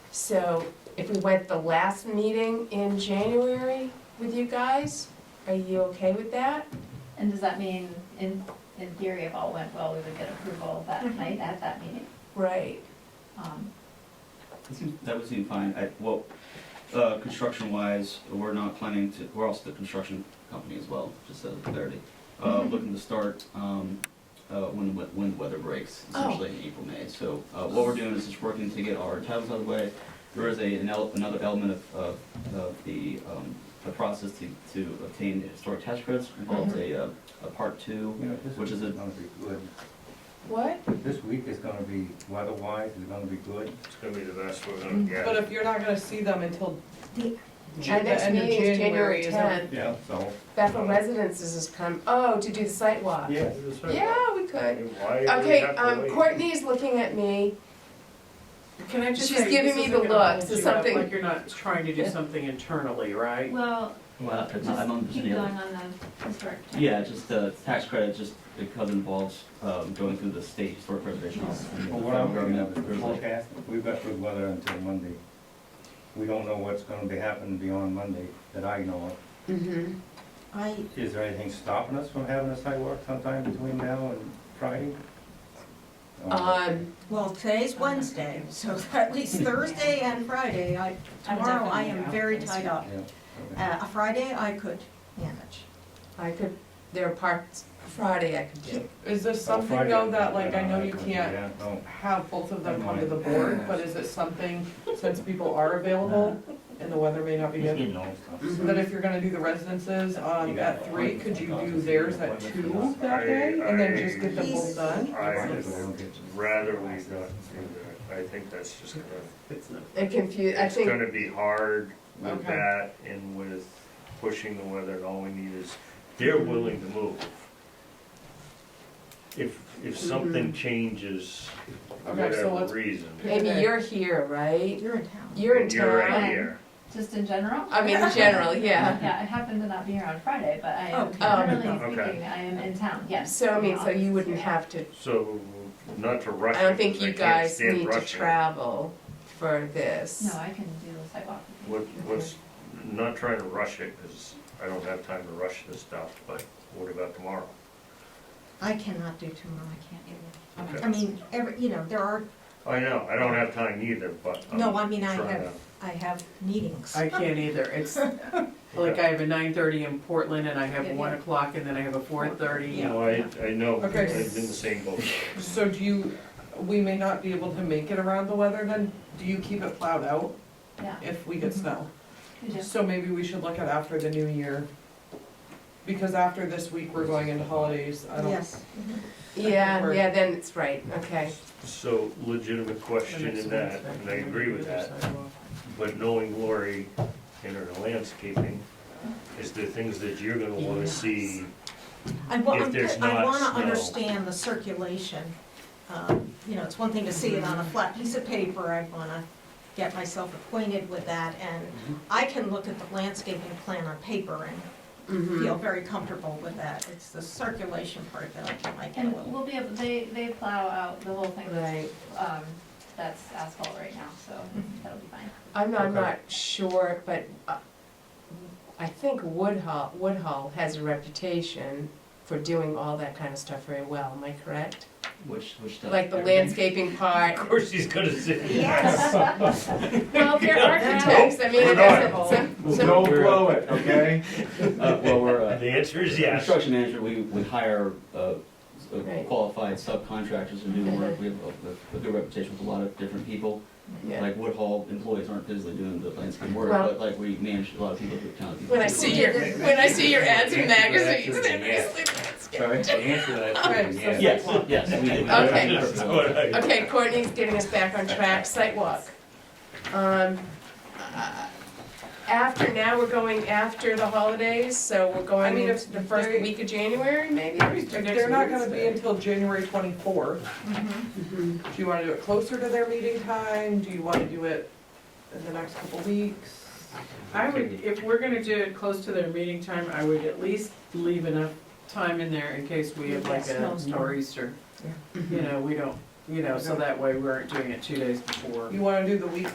So if we went the last meeting in January with you guys, are you okay with that? And does that mean, in, in theory, if all went well, we would get approval that Mhm. night at that meeting? Right, Um, It seems- That would seem fine. I, well, uh, construction-wise, we're not planning to, we're also the construction company as well, just as clarity. Uh, looking to start, um, uh, when, the we- when the weather breaks, Oh. essentially in April, May. So, uh, what we're doing is just working to get our titles out of the way. There is a, an el- another element of, of, of the, um, the process to, to obtain historic tax credits involves a, uh, a part two. You know, this Which week is is a- gonna be good. what? This week is gonna be, weather-wise, it's gonna be good. It's gonna be the best we're Mm. gonna get. uh, But if you're not gonna see them until The- the Our next end of meeting is January January, is that? tenth. Yeah. So, Bethel Residences is come, oh, to do the site walk. yeah. Yeah, we could. Why do we Okay, have to um, wait? Courtney is looking at me. Can I just She's say, giving this me the isn't gonna look, hold so you up, something- Like you're not trying to do something internally, right? Well, Well, just I'm on keep going on the historic. Yeah, just the tax credit, just because it involves, um, going through the state historic preservation office. But what I'm looking at is There's the like- forecast, we've got good weather until Monday. We don't know what's gonna be happening beyond Monday that I know of. Mm-hmm. I, Is there anything stopping us from having a sidewalk sometime between now and Friday? Uh, Uh-huh. Um, well, today's Wednesday, so at least Thursday and Friday, I, I'm tomorrow I definitely am out. very tied Yeah, up. okay. Uh, a Friday I could manage. I could, there are parts, Friday I could do. Is there Oh, something Friday, though that, like, I know you couldn't, can't yeah, no. have both of them come to the board, but is it something, since people are available and the weather may not be You good? know, so. That if you're gonna do the residences, um, at three, could you do theirs at two that day and then just get them both done? I Friday, would we don't get- rather we not do that. I think that's just gonna, It's not. It confused, I it's think. gonna be hard with Okay. that and with pushing the weather. And all we need is, they're willing to move. If, if something changes, for Okay, so whatever let's- reason. Maybe you're here, right? You're in town. You're in and You're right town. here. Just in general? I mean, in general, yeah. Yeah, I happen to not be here on Friday, but I am, Okay. Oh, generally okay. speaking, I am in town, yes. So I mean, so you wouldn't Yeah. have to, So, not to rush I it. don't think 'cause I you can't guys stand need to rushing. travel for this. No, I can do the sidewalk. What, what's, not trying to rush it, because I don't have time to rush this stuff, but what about tomorrow? I cannot do tomorrow, I can't do it. Okay. I mean, every, you know, there are, I know, I don't have time either, but. I'm no, I mean, I trying have, I have meetings. I can't either. It's like I have a nine thirty in Portland and I have Yeah, one yeah. o'clock and then I have a four thirty. to- No, I, I know, I've Okay. been in the same boat. So do you, we may not be able to make it around the weather then, do you keep it plowed out Yeah, if we get snow? we just, So maybe we should look at after the new year, because after this week, we're going into holidays, I don't, Yes. Yeah, Or- yeah, then it's right, okay. So legitimate question in that, and I agree with that, but knowing Lori and her landscaping, is there things that you're gonna wanna see? I wa- If I'm- there's I not wanna snow. understand the circulation. Um, You know, it's one thing to see it on a flat piece of paper, I wanna get myself acquainted with that. And Mm-hmm. I can look at the landscaping plan on paper and Mm-hmm. feel very comfortable with that. It's the circulation part that I I get a and little. we'll be able, they, they plow out the whole thing that's, Right. um, that's asphalt right now, so that'll be fine. I'm not, I'm not sure, but uh, I think Woodhull, Woodhull has a reputation for doing all that kind of stuff very well, am I correct? Which, which stuff? Like the Everything? landscaping Of part, course, she's gonna see. Yes. well, they're architects, I mean, We're that's not. a, some, some Don't blow it, okay? Uh, well, we're, uh, The answer is yes. Construction manager, we, we hire, uh, s- Right. qualified subcontractors to do work, we have a, a good reputation with a lot of different people. Yeah. Like Woodhall employees aren't physically doing the landscape work, Well- but like we manage a lot of people through town. When I see your, when I see your ads in magazines, Yeah. and it's like, Sorry? The answer to that Right, is so- yes. Yes, yes. we do. Okay. That's what I- Okay, Courtney's getting us back on track, sidewalk. Um, uh, after, now we're going after the holidays, so we're I going mean, into if the first they- week of January, maybe? or If next they're not gonna week, be until January twenty-fourth, do you wanna do it closer to their meeting time, do you wanna do it in the next couple weeks? I would, if we're gonna do it close to their meeting time, I would at least leave enough time in there in case we have like a Snowstorm. nor'easter. You know, we don't, you know, so that way we aren't doing it two days before. You wanna do the week